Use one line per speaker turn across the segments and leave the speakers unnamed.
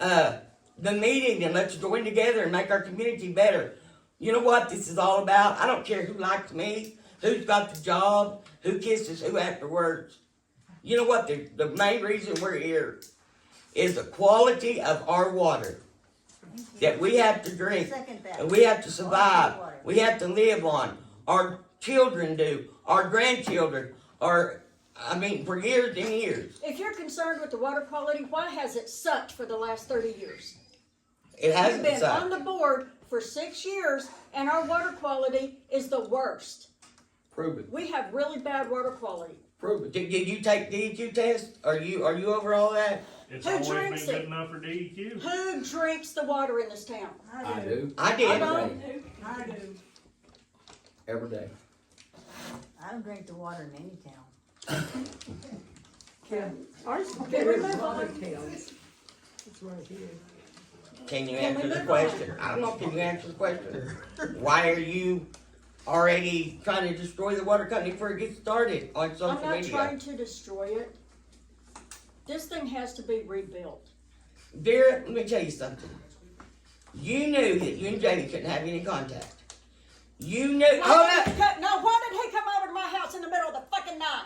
uh, the meeting and let's join together and make our community better. You know what this is all about? I don't care who likes me, who's got the job, who kisses who afterwards. You know what? The, the main reason we're here is the quality of our water that we have to drink
Second that.
and we have to survive. We have to live on. Our children do, our grandchildren, our, I mean, for years and years.
If you're concerned with the water quality, why has it sucked for the last thirty years?
It
We've
hasn't
been
sucked.
on the board for six years and our water quality is the worst.
Prove it.
We have really bad water quality.
Prove it. Did, did you take DEQ test? Are you are you over all that?
It's
Who
always been
drinks
good
it?
enough for E DEQ.
Who drinks the water in this town?
I do,
I
I
did.
don't.
I do.
every day.
I don't drink the water in any town.
Ours is
Can we move on?
It's right here.
Can you
Can we
answer the
move on?
question? I don't know. Can you answer the question? Why are you already trying to destroy the water company before it gets started on
I'm
social
not
media?
trying to destroy it. This thing has to be rebuilt.
Dear, let me tell you something. You knew that you and Jamie couldn't have any contact. You knew. oh, Hold
Why did
up.
he co- No, why did he come over to my house in the middle of the fucking night?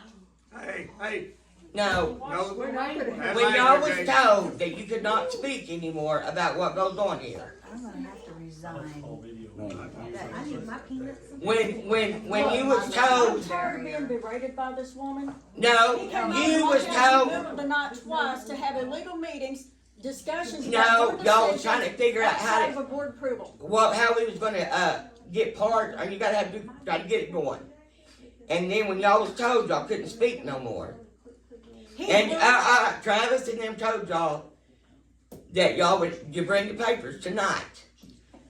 Hey, hey,
No.
no.
We're not gonna have.
When y'all was told that you could not speak anymore about what goes on here.
I'm gonna have to resign.
All video.
That- I need my peanuts. and-
When when when you was
I'm
told
tired of being berated by this woman.
no,
He came over
you
to my
was
house in
told
the middle of the night twice to have illegal meetings, discussions
No,
about board
y'all was
decisions
trying to figure out how to-
outside of a board approval.
what how we was gonna uh get parts or you gotta have to try to get it going. And then when y'all was told y'all couldn't speak no more.
He
And uh,
really-
uh, Travis and them told y'all that y'all would you bring the papers tonight.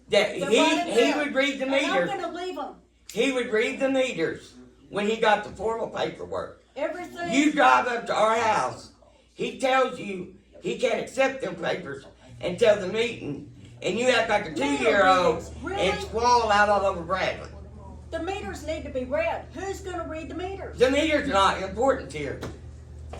That
Then
he
write it
he
down.
would read the
And I'm
meters.
gonna leave him.
He would read the meters when he got the formal paperwork. You
Everything,
drive up to our house. He tells you he can't accept them papers until the meeting, and you act like a two-year-old and
Really?
squall out all over Bradley.
the meters need to be read. Who's gonna read the meters?
The meter's not important here.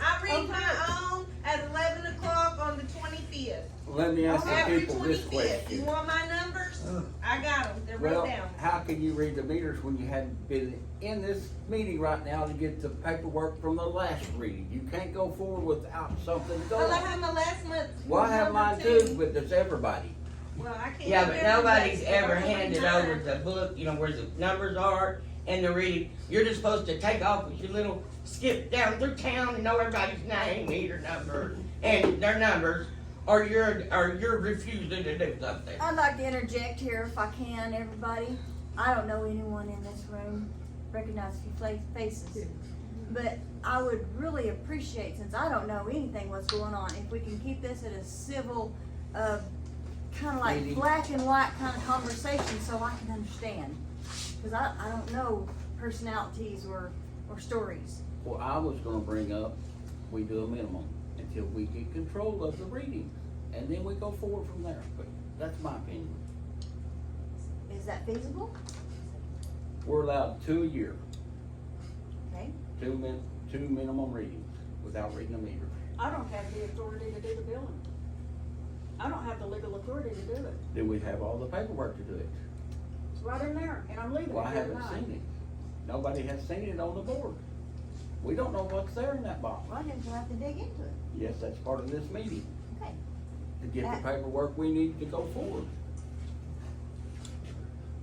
I read my own at eleven o'clock on the twenty-fifth.
Let me ask the
Every
people this
twenty-fifth. You
question.
want my numbers? I got them. They're
Well,
written down.
how can you read the meters when you hadn't been in this meeting right now to get the paperwork from the last reading? You can't go forward without something
Well, I
going.
have my last month.
Well, I have mine too, but does everybody?
Well, I can't.
Yeah,
do
but
everything,
nobody's
so I
ever
don't have
handed
time.
over the book, you know, where the numbers are and the reading. You're just supposed to take off with your little skip down through town and know everybody's name, meter number, and their numbers, or you're or you're refusing to do something.
I'd like to interject here if I can, everybody. I don't know anyone in this room, recognize a few fla- faces. But I would really appreciate, since I don't know anything what's going on, if we can keep this at a civil, uh, kinda like
Meeting.
black and white kinda conversation so I can understand. Cause I, I don't know personalities or, or stories.
Well, I was gonna bring up, we do a minimum until we get control of the reading, and then we go forward from there, but that's my opinion.
Is that feasible?
We're allowed two a year,
Okay,
two min, two minimum readings without reading the meter.
I don't have the authority to do the billing. I don't have the legal authority to do it.
Then we have all the paperwork to do it.
It's right in there, and I'm leaving
Well, I
it here
haven't
tonight.
seen it. Nobody has seen it on the board. We don't know what's there in that box.
well, then we'll have to dig into it.
Yes, that's part of this meeting,
Okay.
to get the paperwork we need to go forward.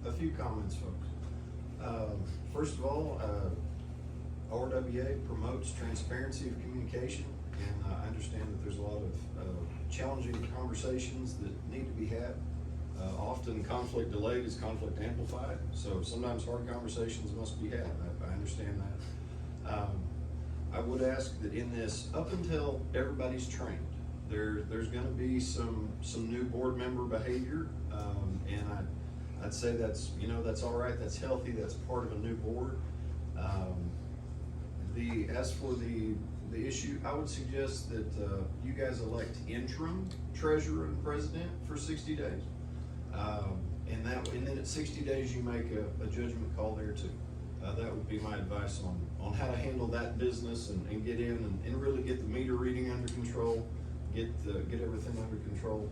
A few comments, folks. Um, First of all, uh, ORWA promotes transparency of communication, and I understand that there's a lot of uh, challenging conversations that need to be had. Uh, Often conflict delayed is conflict amplified, so sometimes hard conversations must be had. I- I understand that. Um, I would ask that in this, up until everybody's trained, there, there's gonna be some, some new board member behavior. Um, and I, I'd say that's, you know, that's all right, that's healthy, that's part of a new board. Um, the, as for the, the issue, I would suggest that, uh, you guys elect interim treasurer and president for sixty days. Um, and that, and then at sixty days, you make a, a judgment call there too. Uh, that would be my advice on, on how to handle that business and, and get in and, and really get the meter reading under control, get the, get everything under control.